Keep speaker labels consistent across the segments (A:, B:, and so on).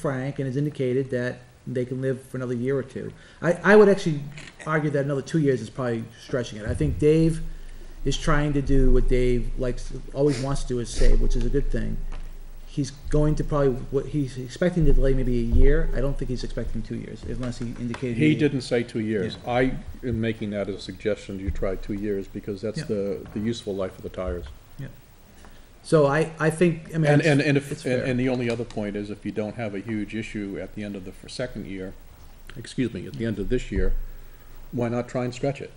A: Frank and has indicated that they can live for another year or two. I, I would actually argue that another two years is probably stretching it. I think Dave is trying to do what Dave likes, always wants to do is save, which is a good thing. He's going to probably, what, he's expecting to delay maybe a year. I don't think he's expecting two years, unless he indicated.
B: He didn't say two years. I am making that as a suggestion, you try two years, because that's
A: Yeah.
B: the, the useful life of the tires.
A: So I, I think, I mean.
B: And,
A: it's-
B: and, and if,
A: it's
B: and
A: fair.
B: and the only other point is if you don't have a huge issue at the end of the f- second year, excuse me, at the end of this year, why not try and stretch it?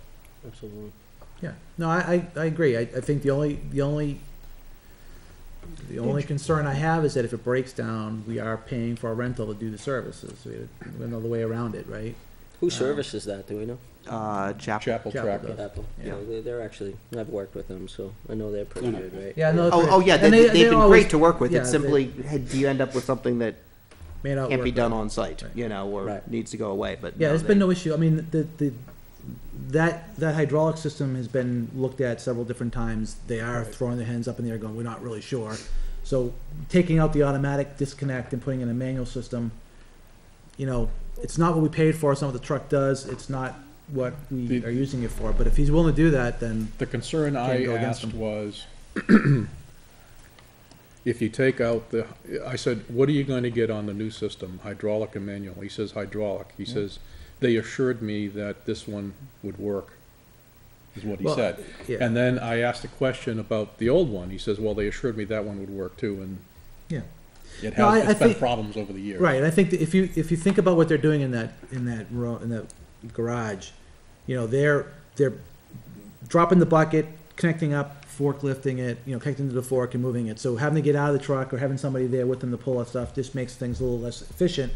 C: Absolutely.
A: Yeah, no, I, I, I agree. I, I think the only, the only, the only concern I have is that if it breaks down, we are paying for a rental to do the services. We have another way around it, right?
C: Who
A: Um,
C: services that, do we know?
D: Uh, Chapel.
B: Chapel
A: Chapel
B: Tracker.
A: does.
C: Apple.
A: Yeah.
C: They- They're actually, I've worked with them, so I know they're pretty good, right?
A: Yeah, no.
D: Oh, oh yeah, they,
A: And
D: they, have been
A: always
D: great to work with.
A: yeah,
D: it's
A: they-
D: simply, had- do you end up with something that
A: may not
D: can't be
A: work.
D: done on site,
A: Right.
D: you know, or
C: Right.
D: needs to go away? But
A: Yeah,
D: no,
A: there's
D: they-
A: been no issue. I mean, the, the, that, that hydraulic system has been looked at several different times. They are throwing their hands up in the air going, we're not really sure. So taking out the automatic disconnect and putting in a manual system, you know, it's not what we paid for, it's not what the truck does, it's not what we
B: The-
A: are using it for. But if he's willing to do that, then,
B: The concern I
A: go against
B: asked
A: them.
B: was, if you take out the, I said, what are you going to get on the new system, hydraulic and manual? He says hydraulic. He says, they assured me that this one would work, is what he
A: Well,
B: said.
A: yeah,
B: And then I asked a question about the old one. He says, well, they assured me that one would work too, and
A: yeah.
B: it
A: No, I-
B: has,
A: I
B: it's been
A: think-
B: problems over the years.
A: Right, and I think that if you, if you think about what they're doing in that, in that ro in that garage, you know, they're, they're dropping the bucket, connecting up, forklifting it, you know, connecting to the fork and moving it. So having to get out of the truck or having somebody there with them to pull up stuff just makes things a little less efficient.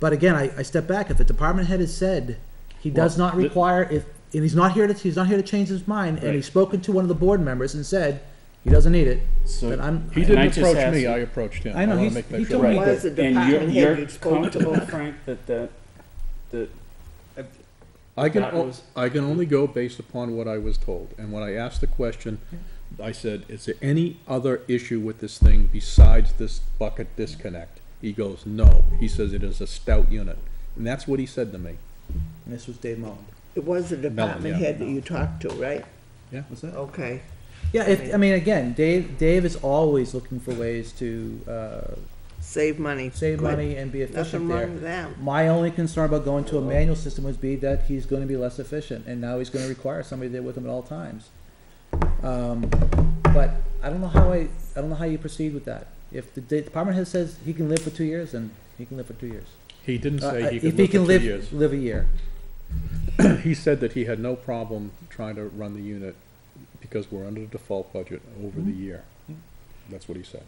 A: But again, I, I step back, if the department head has said he does
B: Well,
A: not
B: the-
A: require, if, and he's not here to, he's not here to change his mind, and
B: Right.
A: he's spoken to one of the board members and said, he doesn't need it, then
E: So,
A: I'm,
B: He
E: And I
B: didn't
E: just
B: approach
E: asked
B: me,
E: him-
B: I approached him.
A: I know,
B: wanna
A: he's-
B: make that
A: he told
B: sure.
A: me
E: right,
F: was the
E: and you're,
F: department head
E: you're
F: that's going to-
E: comfortable, Frank, that the, that
B: I can,
E: That
B: o-
E: was-
B: I can only go based upon what I was told, and when I asked the question, I said, is there any other issue with this thing besides this bucket disconnect? He goes, no, he says it is a stout unit, and that's what he said to me.
A: and this was Dave Mullen.
F: It was the department
B: yeah.
F: head that you talked to, right?
B: Yeah.
A: What's that?
F: Okay.
A: Yeah, if, I mean, again, Dave, Dave is always looking for ways to, uh,
F: Save money.
A: save
F: Good.
A: money and be efficient
F: Nothing wrong with
A: there.
F: that.
A: My only concern about going to a manual system would be that he's gonna be less efficient, and now he's gonna require somebody there with him at all times. Um, but I don't know how I, I don't know how you proceed with that. If the de- department head says he can live for two years, then he can live for two years.
B: He didn't
A: Uh,
B: say he
A: If
B: could
A: he
B: live for
A: can
B: two
A: live,
B: years.
A: live a year.
B: He said that he had no problem trying to run the unit because we're under the default budget over
E: Mm-hmm.
B: the year. That's what he said.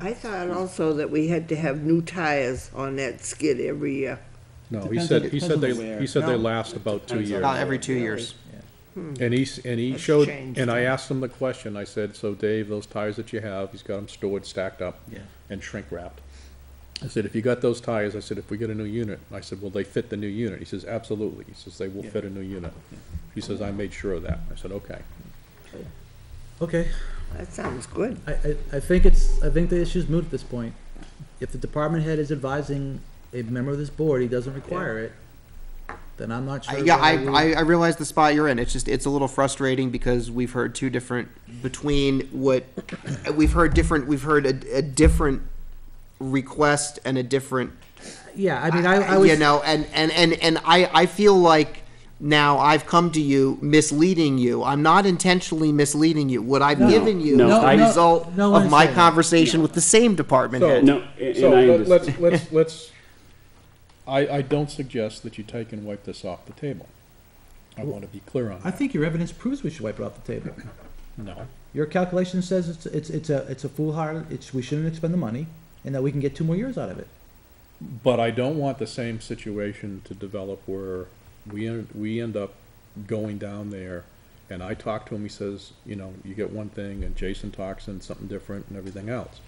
F: I thought also that we had to have new tires on that skid every year.
B: No, he
E: Depends
B: said,
E: on-
B: he
E: depends
B: said
E: on
B: they,
E: where.
B: he said they
F: No.
B: last about two
E: Depends on-
B: years.
D: Uh, every two years.
B: And he, s- and he
F: That's
B: showed,
F: changed,
B: and I asked him the question, I said, so Dave, those tires that you have, he's got them stored, stacked up
A: Yeah.
B: and shrink wrapped. I said, if you got those tires, I said, if we get a new unit, I said, will they fit the new unit? He says, absolutely. He says, they will fit a new unit. He says, I made sure of that. I said, okay.
A: Okay.
F: That sounds good.
A: I, I, I think it's, I think the issue's moot at this point. If the department head is advising a member of this board, he doesn't require it, then I'm not
D: I-
A: sure.
D: Yeah, I,
A: whether we-
D: I, I realize the spot you're in. It's just, it's a little frustrating because we've heard two different, between what, we've heard different, we've heard a, a different request and a different
A: Yeah, I mean, I, I was.
D: you know, and and and and I I feel like now I've come to you misleading you. I'm not intentionally misleading you. What I've given you
E: No,
D: is the
E: I-
D: result
A: no one
D: of
A: is
D: my
A: saying that.
D: conversation with the same department
B: So-
D: head.
E: No, and
B: So
E: I
B: let- let's,
E: understand.
B: let's, let's, I, I don't suggest that you take and wipe this off the table. I want to be clear on
A: I
B: that.
A: think your evidence proves we should wipe it off the table.
B: No.
A: Your calculation says it's, it's, it's a, it's a foolhardy, it's, we shouldn't expend the money, and that we can get two more years out of it.
B: But I don't want the same situation to develop where we, en- we end up going down there, and I talk to him, he says, you know, you get one thing, and Jason talks and something different and everything else.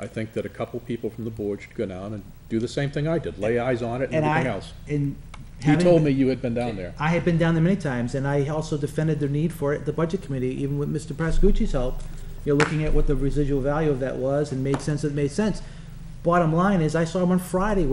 B: I think that a couple people from the board should go down and do the same thing I did, lay eyes on it and
A: And I,
B: everything else.
A: and.
B: He
A: having
B: told
A: been-
B: me you had been down there.
A: I had been down there many times, and I also defended the need for it, at the budget committee, even with Mr. Pascucci's help. You're looking at what the residual value of that was and made sense, it made sense. bottom line is, I saw him on Friday